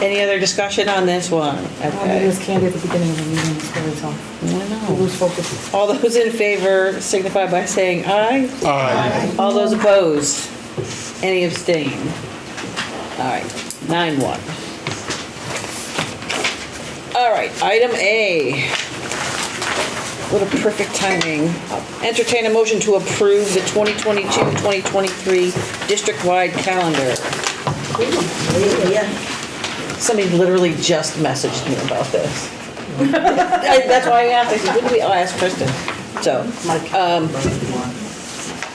Any other discussion on this one? I think it Okay. was candy at the beginning of the meeting, it's very tough. I know. Lose focus. All those in favor signify by saying aye. Aye. All those opposed? Any abstain? All right, nine one. All right, item A. What a perfect timing. Entertain a motion to approve the 2022-2023 district-wide calendar. Somebody literally just messaged me about this. I- That's why I asked, I said, wouldn't we, I'll ask Kristen. So, um,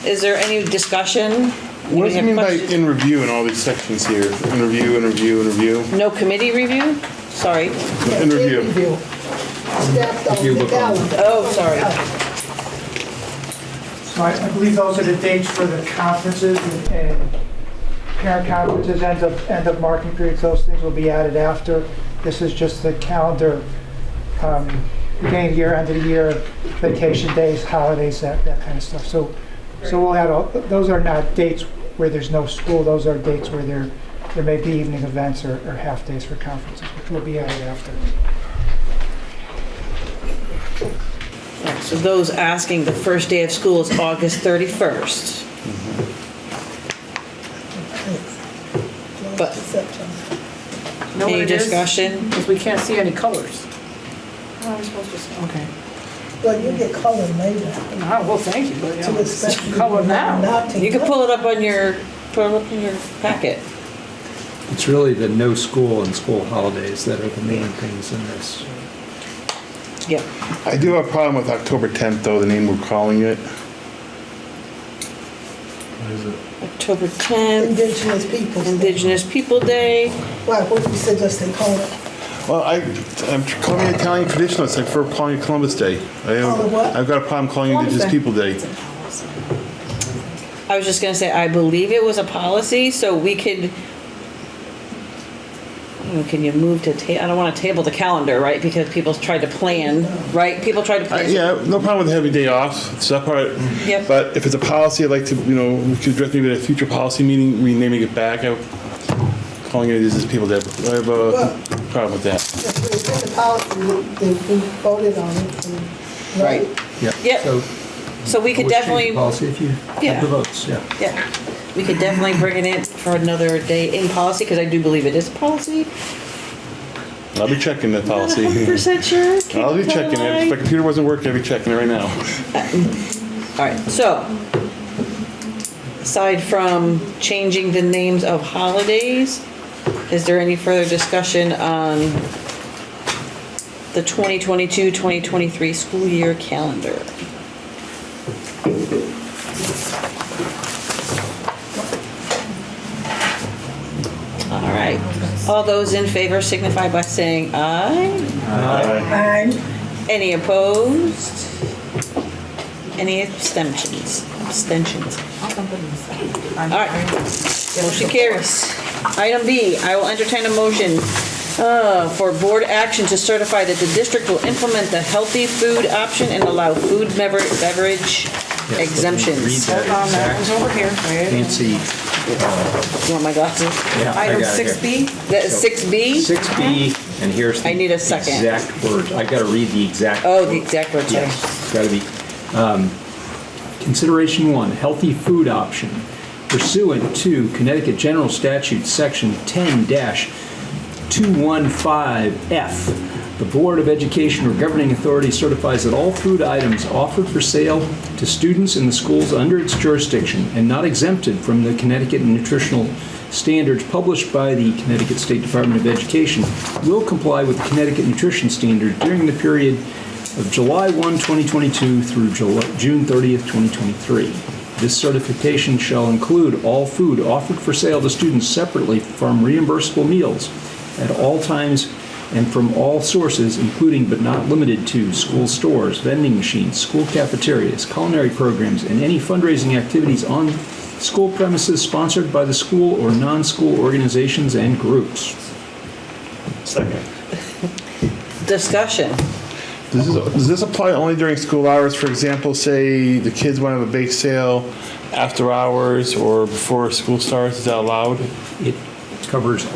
is there any discussion? What does it mean by Questions? in review in all these sections here? In review, in review, in review, No committee review? Sorry. in review. Staff of the calendar. Oh, sorry. So I I believe those are the dates for the conferences and- and parent conferences, end of, end of marking periods, those things will be added after. This is just the calendar, um, beginning of the year, end of the year, vacation days, holidays, that, that kind of stuff. So, so we'll add all, those are not dates where there's no school, those are dates where there, there may be evening events or, or half days for conferences, which will be added after. Yeah, So those asking, the first day of school is August 31st. But- Know what Any it is? discussion? Because we can't see any colors. I'm supposed to say. Okay. Well, you get color later. Ah, Well, thank you, but you To know, expect you color now. not to- You can pull it up on your, pull it up in your packet. It's really the no school and school holidays that are the main things in this. Yep. I do have a problem with October 10th though, the name we're calling it. October 10th, Indigenous people. Indigenous People Day. Why, what do you suggest they call it? Well, I, I'm tr- calling it Italian traditionalist, like for calling it Columbus Day. I Call it have, what? I've got a problem calling it Indigenous People Day. I was just gonna say, I believe it was a policy, so we could, Oh, can you move to ta, I don't wanna table the calendar, right? Because people tried to plan, right? People tried to I- plan. Yeah, no problem with having a day off, it's that part. Yep. But if it's a policy, I'd like to, you know, we could direct maybe at a future policy meeting, renaming it back. I'm Calling it Indigenous People Day. I have Well- a problem with that. If it's in the policy, we we voted on it. and- Right. Yeah. Yep. So So we could always change the definitely. Policy if you Yeah. have the votes, yeah. Yeah, we could definitely bring it in for another day in policy, because I do believe it is policy. I'll be checking that policy. Not a hundred percent sure. can't I'll be tell a checking it. If my lie. computer wasn't working, I'd be checking it right now. All right, so, aside from changing the names of holidays, is there any further discussion on the 2022, 2023 school year calendar? All right, all those in favor signify by saying aye. Any opposed? Any abstentions? Abstentions. All All right. Motion carries. Item B, I will entertain a motion uh, for board action to certify that the district will implement the healthy food option and allow food bever- beverage Yes, let me read exemptions. that Hold on, that was exact- over here. Wait. Nancy, You want my glasses? yeah, I Item got it six here. B, That is 6B? Six B, and here's the. E? Uh-huh. I need a second. Exact words, I gotta read the exact. Oh, the exact words, sorry. Yes, gotta be. Um, Consideration one, healthy food option pursuant to Connecticut General Statute, Section ten dash 215F. The Board of Education or governing authority certifies that all food items offered for sale to students in the schools under its jurisdiction and not exempted from the Connecticut nutritional standards published by the Connecticut State Department of Education will comply with the Connecticut nutrition standard during the period of July 1, 2022 through Jul- June 30th, 2023. This certification shall include all food offered for sale to students separately from reimbursable meals at all times and from all sources, including but not limited to school stores, vending machines, school cafeterias, culinary programs, and any fundraising activities on school premises sponsored by the school or non-school organizations and groups. Second. Discussion. Does this, does this apply only during school hours? For example, say the kids want to have a bake sale after hours or before school starts, is that allowed? It covers